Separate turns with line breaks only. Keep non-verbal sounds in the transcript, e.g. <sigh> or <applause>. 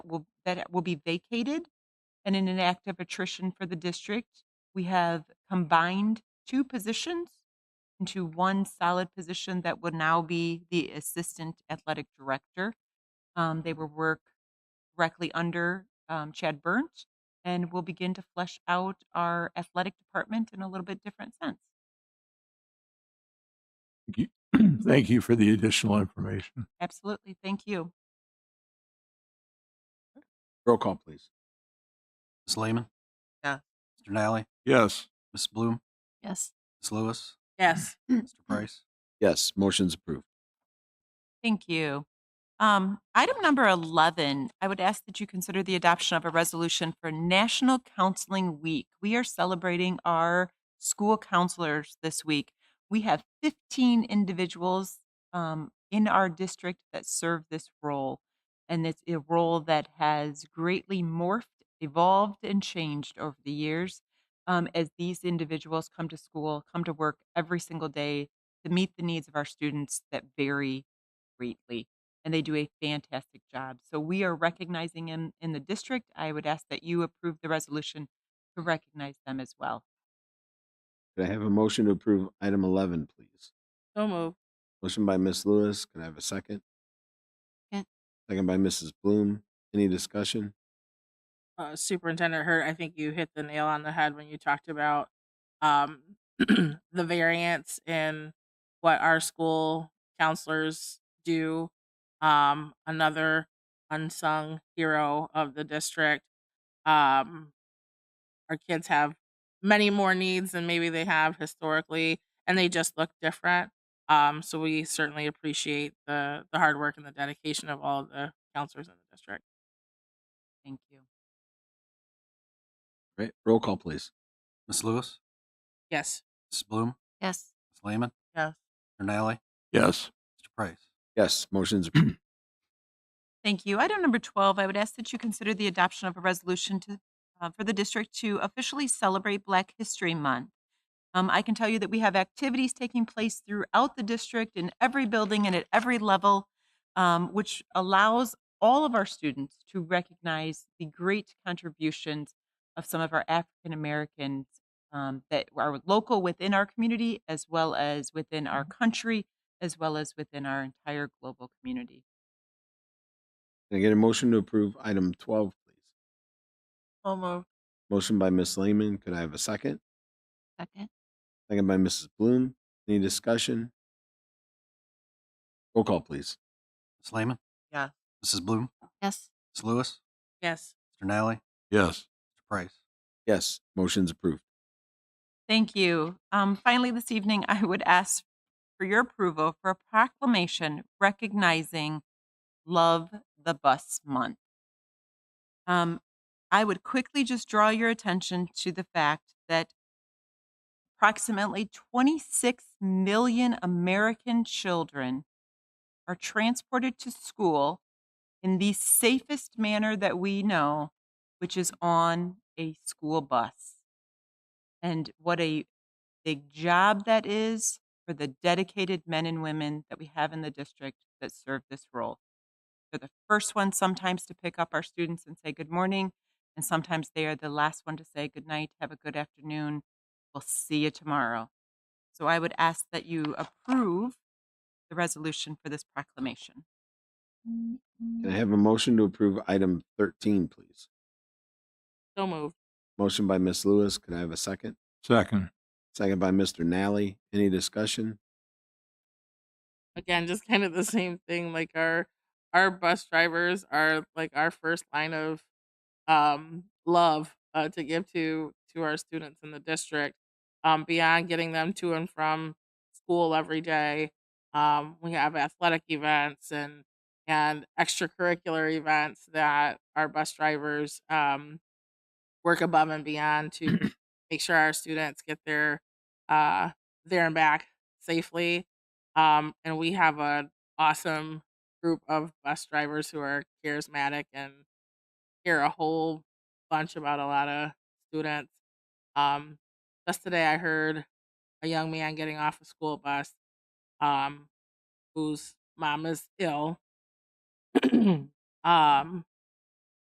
will that it will be vacated. And in an act of attrition for the district, we have combined two positions into one solid position that would now be the assistant athletic director. Um, they will work directly under um, Chad Burnt, and we'll begin to flesh out our athletic department in a little bit different sense.
Thank you. <clears throat> Thank you for the additional information.
Absolutely. Thank you.
Roll call, please.
Ms. Lehman?
Yeah.
Mr. Nally?
Yes,
Ms. Bloom?
Yes.
Ms. Lewis?
Yes.
Mr. Price?
Yes, motion's approved.
Thank you. Um, item number 11, I would ask that you consider the adoption of a resolution for National Counseling Week. We are celebrating our school counselors this week. We have 15 individuals um, in our district that serve this role, and it's a role that has greatly morphed, evolved, and changed over the years um, as these individuals come to school, come to work every single day to meet the needs of our students that vary greatly and they do a fantastic job. So we are recognizing them in the district. I would ask that you approve the resolution to recognize them as well.
Could I have a motion to approve item 11, please?
So move.
Motion by Ms. Lewis. Can I have a second?
Second.
Second by Mrs. Bloom. Any discussion?
Uh, Superintendent Hurt, I think you hit the nail on the head when you talked about um, <clears throat> the variance in what our school counselors do. Um, another unsung hero of the district. Um, our kids have many more needs than maybe they have historically, and they just look different. Um, so we certainly appreciate the the hard work and the dedication of all of the counselors in the district.
Thank you.
Right. Roll call, please.
Ms. Lewis?
Yes.
Ms. Bloom?
Yes.
Ms. Lehman?
Yes.
Mr. Nally?
yes,
Mr. Price?
Yes,
<clears throat>
motion's approved.
Thank you. Item number 12, I would ask that you consider the adoption of a resolution to, uh, for the district to officially celebrate Black History Month. Um, I can tell you that we have activities taking place throughout the district in every building and at every level, um, which allows all of our students to recognize the great contributions of some of our African Americans um, that are local within our community, as well as within our
Mm-hmm.
country, as well as within our entire global community.
Can I get a motion to approve item 12, please?
So moved.
Motion by Ms. Lehman. Could I have a second?
Second.
Second by Mrs. Bloom. Any discussion? Roll call, please.
Ms. Lehman?
Yeah.
Mrs. Bloom?
Yes.
Ms. Lewis?
Yes.
Mr. Nally?
yes,
Mr. Price?
Yes, motion's approved.
Thank you. Um, finally, this evening, I would ask for your approval for a proclamation recognizing Love the Bus Month. Um, I would quickly just draw your attention to the fact that approximately 26 million American children are transported to school in the safest manner that we know, which is on a school bus and what a big job that is for the dedicated men and women that we have in the district that serve this role. They're the first ones sometimes to pick up our students and say good morning, and sometimes they are the last one to say good night, have a good afternoon, we'll see you tomorrow. So I would ask that you approve the resolution for this proclamation.
Can I have a motion to approve item 13, please?
So moved.
Motion by Ms. Lewis. Could I have a second?
second,
Second by Mr. Nally. Any discussion?
Again, just kind of the same thing. Like our our bus drivers are like our first line of um love uh, to give to to our students in the district. Um, beyond getting them to and from school every day, um, we have athletic events and and extracurricular events that our bus drivers um, work above and beyond to make sure our students get their uh there and back safely um and we have an awesome group of bus drivers who are charismatic and hear a whole bunch about a lot of students um just today i heard a young man getting off a school bus <clears throat> um whose mom is ill um